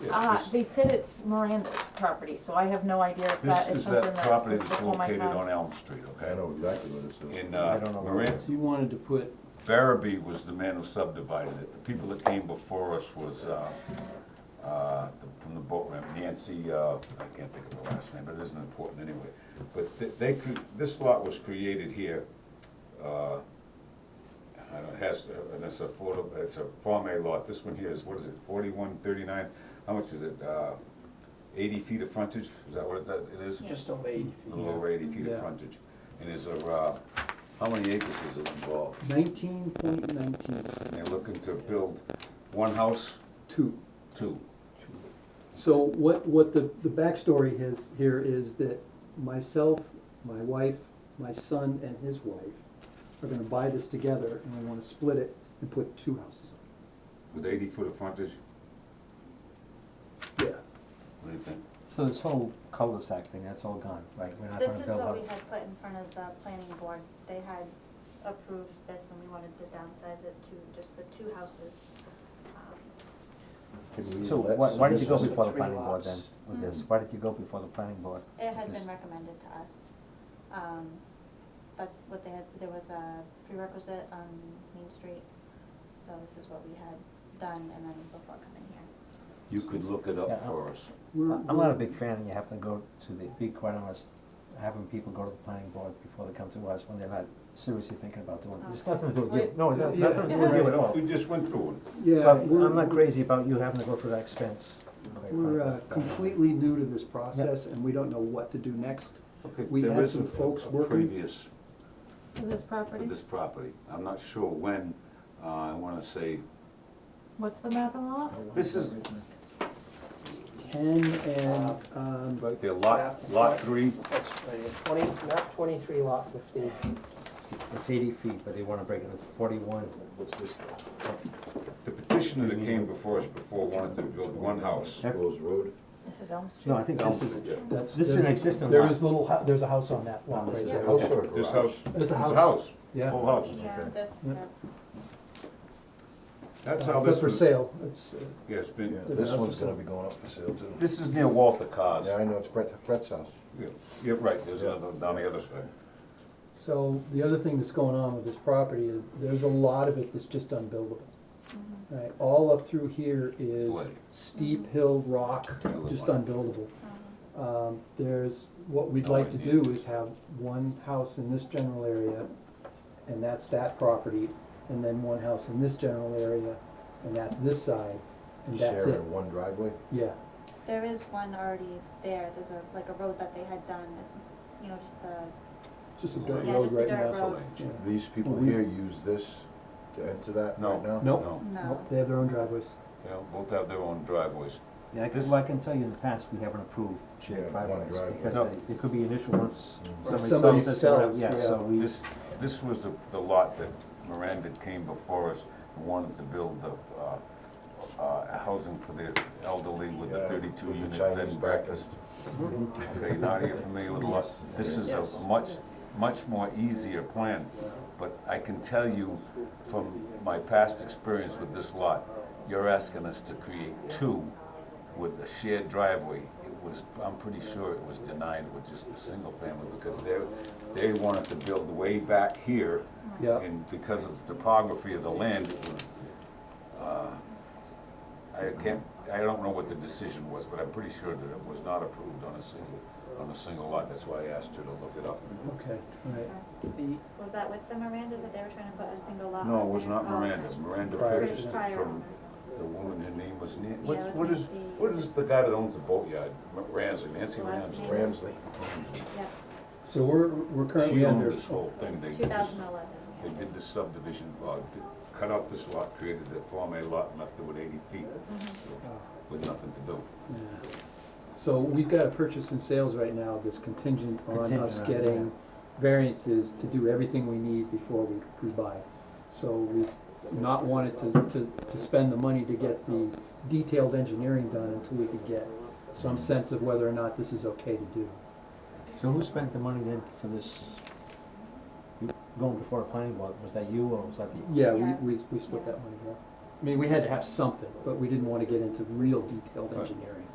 Uh, Ah, This- they said it's Miranda's property, so I have no idea if This that is is something that that property was that's before my located time. on Elm Street, I okay? know exactly what it is. In, I uh, don't know what it Marin, is. So you wanted to put, Barabee was the man who subdivided it. The people that came before us was, uh, uh, the- from the boat ramp, Nancy, uh, I can't think of her last name, but it isn't important anyway. But th- they, cre- this lot was created here, uh, and it has, uh, and it's affordable, it's a Form A lot. This one here is, what is it, forty-one thirty-nine? How much is it? Uh, Eighty feet of frontage? Is that what it that- it is? just over eighty feet. A little over eighty feet of Yeah. frontage. And is a, uh, how many acres is it involved? Nineteen point nineteen And they're looking to build one house, two. two. So what, what the, the backstory is here is that myself, my wife, my son and his wife are gonna buy this together and we wanna split it and put two houses on With eighty foot of frontage, it. Yeah. what do you think? So this whole cul-de-sac thing, that's all gone, right? We're not This gonna is build what we up. had put in front of the planning board, they had approved this and we wanted to downsize it to just the two houses. Um, Can we So let- why, why did this you go was- before the three planning board then lots. with this? Why did you go before the planning board? It had with been this? recommended to us, um, that's what they had, there was a prerequisite on Main Street, so this is what we had done and then before coming here. You could look it Yeah, up for us. We're- I- I'm not a big fan of you having to go to the, be quite honest, having people go to the planning board before they come to us when they're not seriously thinking about doing it. Oh. It's nothing to do with you, Wait. no, it's not- Yeah. nothing to do with you at all. We just went through it. Yeah, But we're, I'm not crazy about you having to go through that expense. quite we're uh, frankly. completely new to this process and we don't know what to do next. Okay, We there had is some a- folks a working. Previous For this for property? this property. I'm not sure when, uh, I wanna say, What's the map and lot? this is, Ten and, um, right there, lot, lot three, That's right, here, twenty, map twenty-three, lot fifteen. It's eighty feet, but they wanna break it into forty-one. what's this? The petitioner that came before us before wanted to build one house. That's- Rose Road. This is Elm Street. No, I think this is, Yeah. That's, This is an existing There lot. is little, hou- there's a house on that lot right This is there. a house or a This garage? house, There's this a house, house, house, yeah. whole house. Yeah, this, Yep. That's how It's this up for was, sale, it's, uh, yeah, it's Yeah, been, this one's gonna be going up for sale too. this is near Walter Cars. Yeah, I know, it's Brett, Brett's house. Yeah, yeah, right, there's another down the other side. so the other thing that's going on with this property is there's a lot of it that's just unbuildable. Mm-hmm. Right, all up through here is Flooded. steep hill, rock, Yeah, just like- unbuildable. Um, there's, what we'd No like to do idea. is have one house in this general area, and that's that property, and then one house in this general area, and that's this side, and that's it, Sharing one driveway. yeah. there is one already there, there's a, like a road that they had done, it's, you know, just the, It's just a dirt Yeah, road just a right dirt now. road. So- Yeah. These people We- here use this to enter that No. right now? Nope. No, no. Nope, they have their own driveways. they all- both have their own driveways. yeah, I can, well, I can tell you in the past, we haven't approved Yeah, one driveways, driveway. No. because they, it could be an issue once Mm. somebody somebody sells this, or whatever, sells, yeah, yeah. so we. This, this was the, the lot that Miranda came before us and wanted to build the, uh, uh, housing for the elderly with the Yeah, thirty-two with the unit bed Chinese and breakfast. Okay, now you're familiar with the lot. This is a much, much more easier plan, but I can tell you from my past experience with this lot, you're asking us to create two with a shared driveway. It was, I'm pretty sure it was denied with just the single family because they, they wanted to build way back here. Yeah. And because of the topography of the land, it was, uh, I can't, I don't know what the decision was, but I'm pretty sure that it was not approved on a single, on a single lot, that's why I asked her to look it up. Okay, all right. Was that with the Mirandas, that they were trying to put a single lot? No, it on was there? not Oh, Miranda, okay. Miranda Prior to purchased that. it from the woman, her name was Nan, it what's, was what is, Nancy. what is the guy that owns the boatyard, Ramsey, Nancy Last Ramsey? name. Ramsley. Yeah, So we're, we're She currently owned under, this whole thing, they two did this, thousand oh. eleven. they did this subdivision, uh, did- cut out this lot, created the Form A lot, and left it with eighty feet, Mm-hmm. with nothing to do. Oh, yeah. So we've got a purchase and sales right now that's contingent on Contingent us on, getting variances to do everything we need before we, we buy. So we've not wanted to, to, to spend the money to get the detailed engineering done until we could get some sense of whether or not this is okay to do. So who spent the money then for this, going before a planning board, was that you or was that the? Yeah, we, Yes. we, we split that money, yeah. I mean, we had to have something, but we didn't wanna get into real detailed Right. engineering.